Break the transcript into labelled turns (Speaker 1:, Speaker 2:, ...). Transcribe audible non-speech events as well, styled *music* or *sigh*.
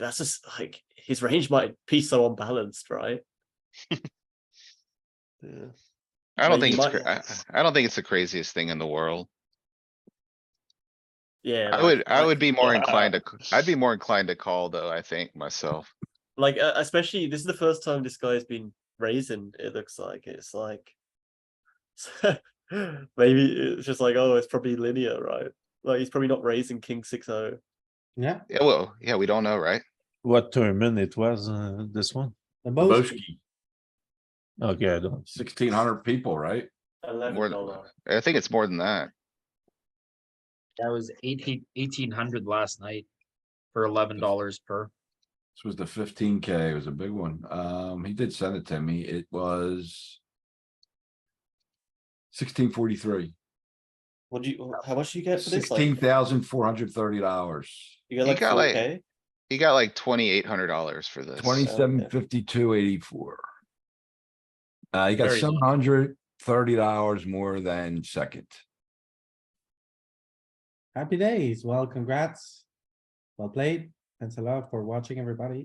Speaker 1: that's just like his range might be so unbalanced, right?
Speaker 2: Yeah.
Speaker 3: I don't
Speaker 1: Like,
Speaker 3: think
Speaker 1: you
Speaker 3: it's,
Speaker 1: might-
Speaker 3: cra- I, I don't think it's the craziest thing in the world.
Speaker 1: Yeah.
Speaker 3: I
Speaker 1: like-
Speaker 3: would, I
Speaker 1: like- uh,
Speaker 3: would be more
Speaker 1: yeah.
Speaker 3: inclined to, c- I'd be more inclined to call though, I think myself.
Speaker 1: Like, uh, especially this is the first time this guy's been raising, it looks like. It's like. *laughs* maybe it's just like, oh, it's probably linear, right? Like, he's probably not raising King oh, 6 0.
Speaker 4: yeah,
Speaker 3: Yeah, well, yeah, we don't know, right?
Speaker 2: What tournament it was, uh, this one?
Speaker 4: the most,
Speaker 5: Boski,
Speaker 2: Okay, I don't.
Speaker 5: sixteen hundred people, right?
Speaker 3: More than, I think it's more than that.
Speaker 6: That was eighteen, eighteen hundred last night for eleven dollars per.
Speaker 5: This was the fifteen K, it was a big one. Um, he did send it to me, it was. Sixteen forty-three,
Speaker 1: What do you, how much do you get for this?
Speaker 5: sixteen
Speaker 1: Like,
Speaker 5: thousand four hundred thirty dollars,
Speaker 1: you get
Speaker 3: You
Speaker 1: like
Speaker 3: got, like,
Speaker 1: 4K?
Speaker 3: He got like twenty-eight hundred dollars for this.
Speaker 5: twenty-seven fifty-two eighty-four. Uh, he got
Speaker 6: Very low.
Speaker 5: seven hundred thirty dollars more than second.
Speaker 4: happy days, well, congrats. Well played, thanks a lot for watching, everybody.